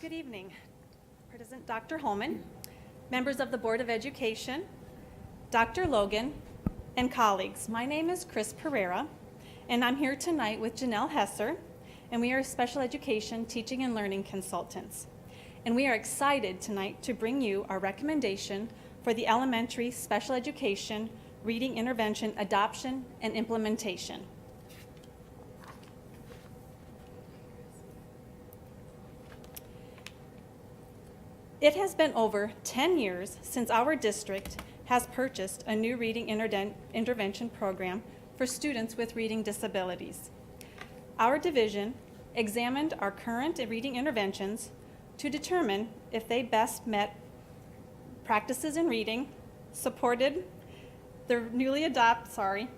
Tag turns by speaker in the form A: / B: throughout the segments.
A: Good evening, President Dr. Holman, members of the Board of Education, Dr. Logan, and colleagues. My name is Chris Pereira, and I'm here tonight with Janelle Hesser, and we are special education teaching and learning consultants. And we are excited tonight to bring you our recommendation for the elementary special education reading intervention adoption and implementation. It has been over 10 years since our district has purchased a new reading interden- intervention program for students with reading disabilities. Our division examined our current reading interventions to determine if they best met practices in reading, supported the newly adopt, sorry,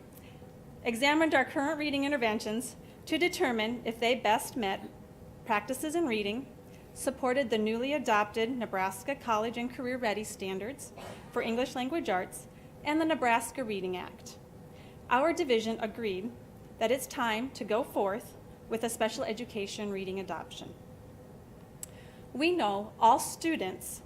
A: examined our current reading interventions to determine if they best met practices in reading, supported the newly adopted Nebraska College and Career Ready standards for English language arts, and the Nebraska Reading Act. Our division agreed that it's time to go forth with a special education reading adoption. We know all students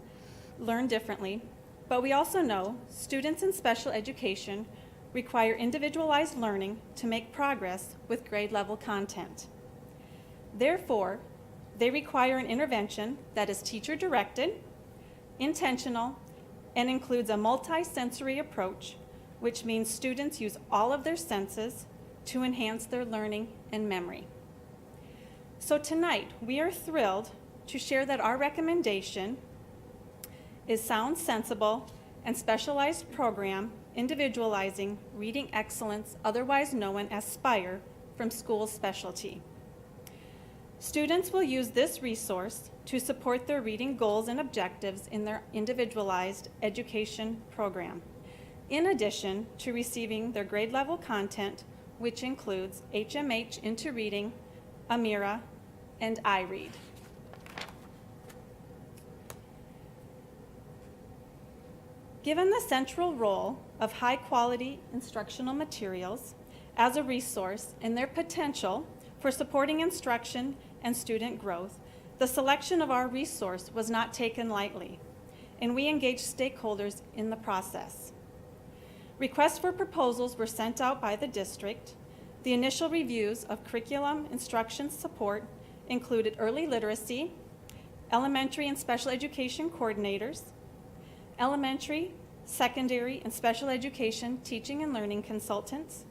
A: learn differently, but we also know students in special education require individualized learning to make progress with grade level content. Therefore, they require an intervention that is teacher directed, intentional, and includes a multisensory approach, which means students use all of their senses to enhance their learning and memory. So tonight, we are thrilled to share that our recommendation is sound, sensible, and specialized program individualizing reading excellence, otherwise known as SPIRE, from school specialty. Students will use this resource to support their reading goals and objectives in their individualized education program, in addition to receiving their grade level content, which includes HMH Into Reading, Amira, and iRead. Given the central role of high quality instructional materials as a resource and their potential for supporting instruction and student growth, the selection of our resource was not taken lightly, and we engaged stakeholders in the process. Requests for proposals were sent out by the district. The initial reviews of curriculum instruction support included early literacy, elementary and special education coordinators, elementary, secondary, and special education teaching and learning consultants,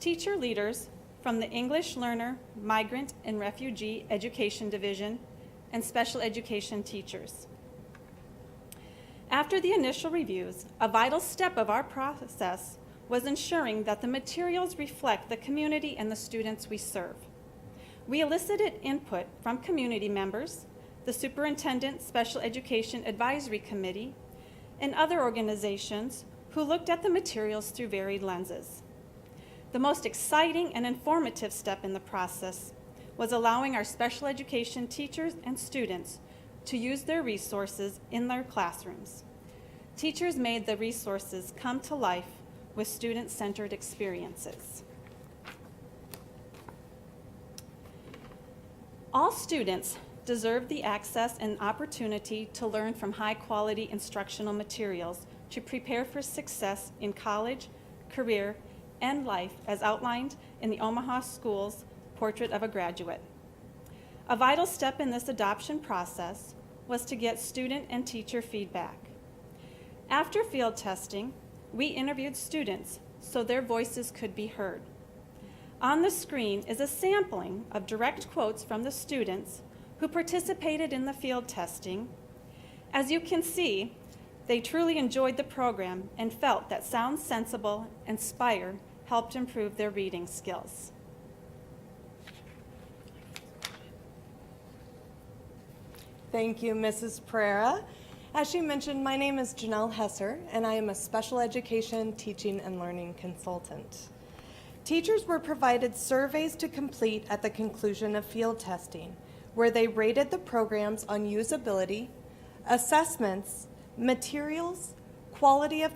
A: teacher leaders from the English Learner, Migrant, and Refugee Education Division, and special education teachers. After the initial reviews, a vital step of our process was ensuring that the materials reflect the community and the students we serve. We elicited input from community members, the Superintendent Special Education Advisory Committee, and other organizations who looked at the materials through varied lenses. The most exciting and informative step in the process was allowing our special education teachers and students to use their resources in their classrooms. Teachers made the resources come to life with student centered experiences. All students deserve the access and opportunity to learn from high-quality instructional materials to prepare for success in college, career, and life as outlined in the Omaha Schools Portrait of a Graduate. A vital step in this adoption process was to get student and teacher feedback. After field testing, we interviewed students so their voices could be heard. On the screen is a sampling of direct quotes from the students who participated in the field testing. As you can see, they truly enjoyed the program and felt that Sound Sensible and Spire helped improve their reading skills.
B: Thank you, Mrs. Pereira. As she mentioned, my name is Janelle Hesser, and I am a special education teaching and learning consultant. Teachers were provided surveys to complete at the conclusion of field testing, where they rated the programs on usability, assessments, materials, quality of